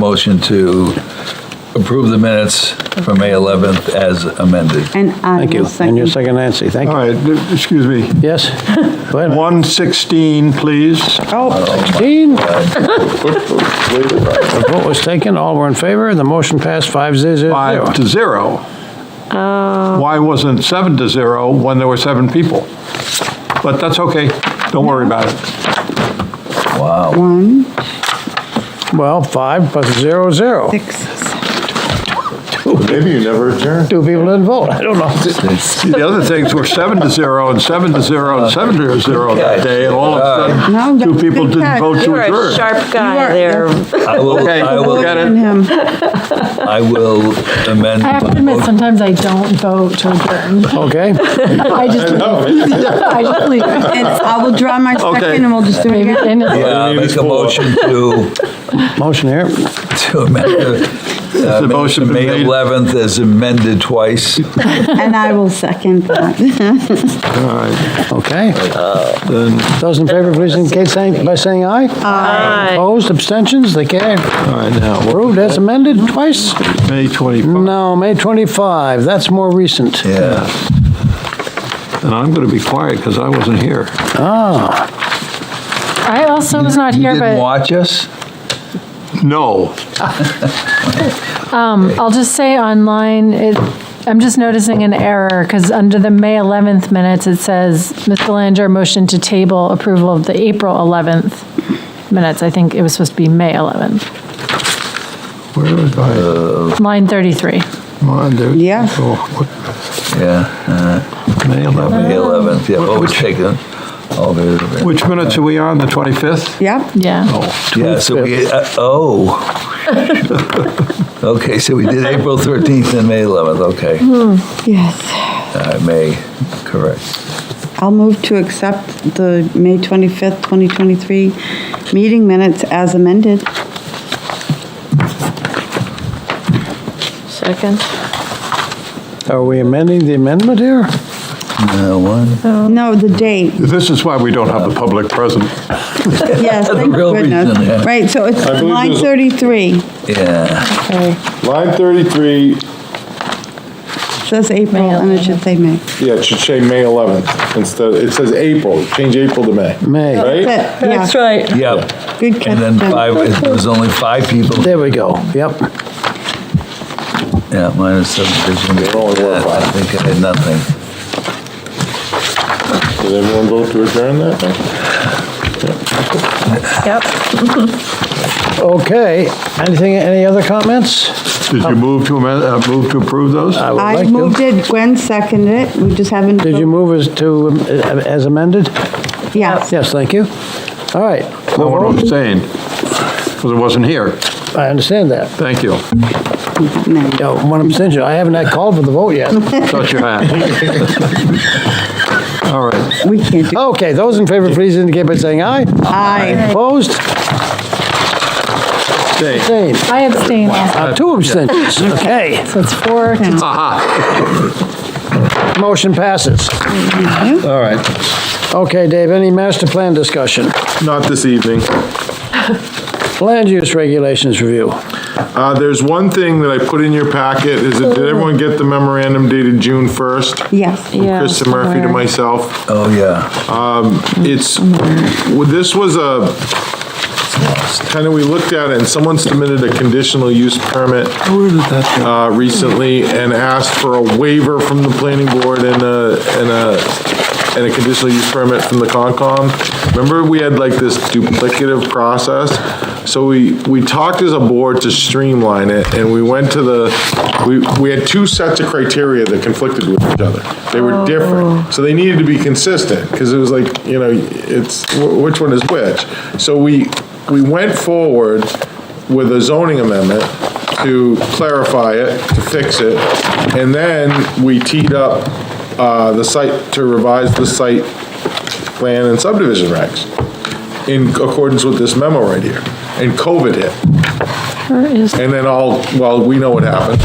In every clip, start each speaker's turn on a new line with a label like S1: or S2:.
S1: Motion to approve the minutes for May 11th as amended.
S2: And I
S3: Thank
S2: will
S3: you.
S2: second.
S3: And your second, Nancy, thank
S4: All
S3: you.
S4: right, th- excuse me.
S3: Yes? Go ahead.
S4: 116, please.
S3: Oh, 16. The vote was taken, all were in favor, the motion passed five zero zero.
S4: Five to zero. Why wasn't seven to zero when there were seven people? But that's okay. Don't worry about it.
S1: Wow.
S2: One,
S3: Well, five plus zero, zero.
S2: six, seven.
S5: Oh, Maybe you never adjourned.
S3: Two people didn't vote, I don't know.
S4: The other things were seven to zero and seven to zero and seven to zero that day, and all of a
S2: No,
S4: sudden, two
S2: that's
S4: people
S2: good
S4: didn't
S2: catch.
S4: vote to
S6: You're a
S4: adjourn.
S6: sharp guy
S2: are,
S6: there.
S1: I will,
S4: Okay,
S1: I
S4: we'll
S1: will,
S4: get
S2: and
S4: it.
S2: him.
S1: I will amend.
S7: I have to
S1: my
S7: admit,
S1: motion.
S7: sometimes I don't vote to adjourn.
S3: Okay,
S7: I just, I just leave.
S2: And I will draw my
S4: Okay.
S2: second and we'll just do it
S7: Maybe,
S2: again.
S7: and it's-
S1: Yeah, I'll Uh, make a motion to,
S3: motion here.
S1: to amend the uh,
S4: the
S1: minutes
S4: motion
S1: of
S4: been
S1: May
S4: made?
S1: 11th as amended twice.
S2: And I will second that.
S4: All right,
S3: Okay.
S4: then,
S3: Those in favor, please indicate saying- by saying aye.
S6: Aye.
S3: Opposed, abstentions, they carry.
S4: all right, now,
S3: Approved as amended twice?
S4: May 25.
S3: No, May 25, that's more recent.
S1: Yeah.
S4: And I'm going to be quiet because I wasn't here.
S7: I also was not
S1: You
S7: here,
S1: didn't
S7: but
S1: watch us?
S4: No.
S7: um, I'll just say online, it, I'm just noticing an error, because under the May 11th minutes, it says, Ms. Belanger motioned to table approval of the April 11th minutes. I think it was supposed to be May 11th,
S4: Where was
S5: Uh.
S4: I?
S7: line 33.
S4: Come on, dude.
S2: Yeah.
S4: Oh, what-
S1: Yeah,
S4: May
S1: uh,
S4: 11.
S1: May 11th, yeah, vote was taken. All there-
S4: Which minutes are we on, the 25th?
S2: Yep.
S4: Oh.
S7: Yeah.
S1: Yeah, so we, uh, oh. Okay, so we did April 13th and May 11th, okay.
S2: Yes.
S1: I Uh, may, correct.
S2: I'll move to accept the May 25th, 2023 meeting minutes as amended.
S6: Second.
S3: Are we amending the amendment here?
S1: Uh, One,
S2: No, the date.
S4: This is why we don't have the public present.
S2: Yes,
S1: The
S2: thank
S1: real reason, yeah.
S2: goodness. Right, so it's
S5: believe
S2: line
S5: there's-
S2: 33,
S1: yeah,
S7: Okay.
S5: Line 33,
S2: says April, and it should say May.
S5: yeah, it should say May 11th instead, it says April, change April to May.
S3: May.
S5: Right?
S2: That's it, yeah.
S6: right.
S1: yeah.
S2: Good catch.
S1: And then
S2: Ben.
S1: five, it was only five people,
S3: There we go, yep.
S1: yeah, minus seven, there's gonna be-
S5: There only were
S1: I
S5: five.
S1: think I had nothing.
S5: Did everyone vote to adjourn that? thing?
S6: Yep.
S3: Okay, anything, any other comments?
S4: Did you move to amend, uh, move to approve those?
S3: I would
S2: I
S3: like to.
S2: moved it, Gwen seconded it, we just haven't.
S3: Did you move as to, um, as amended?
S2: Yes.
S3: Yes, thank you. All right,
S4: I want to abstain, because I wasn't here.
S3: I understand that.
S4: Thank you.
S2: No.
S3: You know, One abstention, I haven't had called for the vote yet.
S4: Thought you had. All right.
S2: We can't do.
S3: Okay, those in favor, please indicate by saying aye.
S2: Aye.
S3: Opposed?
S4: Abstain.
S3: Same.
S7: I abstain also,
S3: Uh, Two abstentions, okay.
S7: so it's four to
S3: Motion passes.
S4: All right.
S3: Okay, Dave, any master plan discussion?
S5: Not this evening.
S3: Land use regulations review.
S5: Uh, there's one thing that I put in your packet, is it, did everyone get the memorandum dated June 1st?
S2: Yes.
S6: Yeah,
S5: Krista Murphy to
S6: somewhere.
S5: myself.
S1: Oh, yeah,
S5: it's, well, this was a, kind of, we looked at it, and someone submitted a conditional use permit uh, recently and asked for a waiver from the planning board and a, and a, and a conditional use permit from the Concom. Remember, we had like this duplicative process? So we, we talked as a board to streamline it, and we went to the, we, we had two sets of criteria that conflicted with each other. They were different, so they needed to be consistent, because it was like, you know, it's, wh- which one is which? So we, we went forward with a zoning amendment, to clarify it, to fix it, and then we teed up uh, the site, to revise the site plan and subdivision regs in accordance with this memo right here. And COVID hit,
S7: is
S5: and then all, well, we know what happened.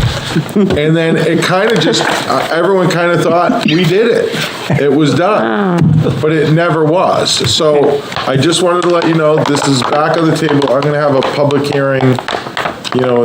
S5: And then it kind of just, uh, everyone kind of thought, we did it, it was done, but it never was. So I just wanted to let you know, this is back on the table, I'm gonna have a public hearing you know,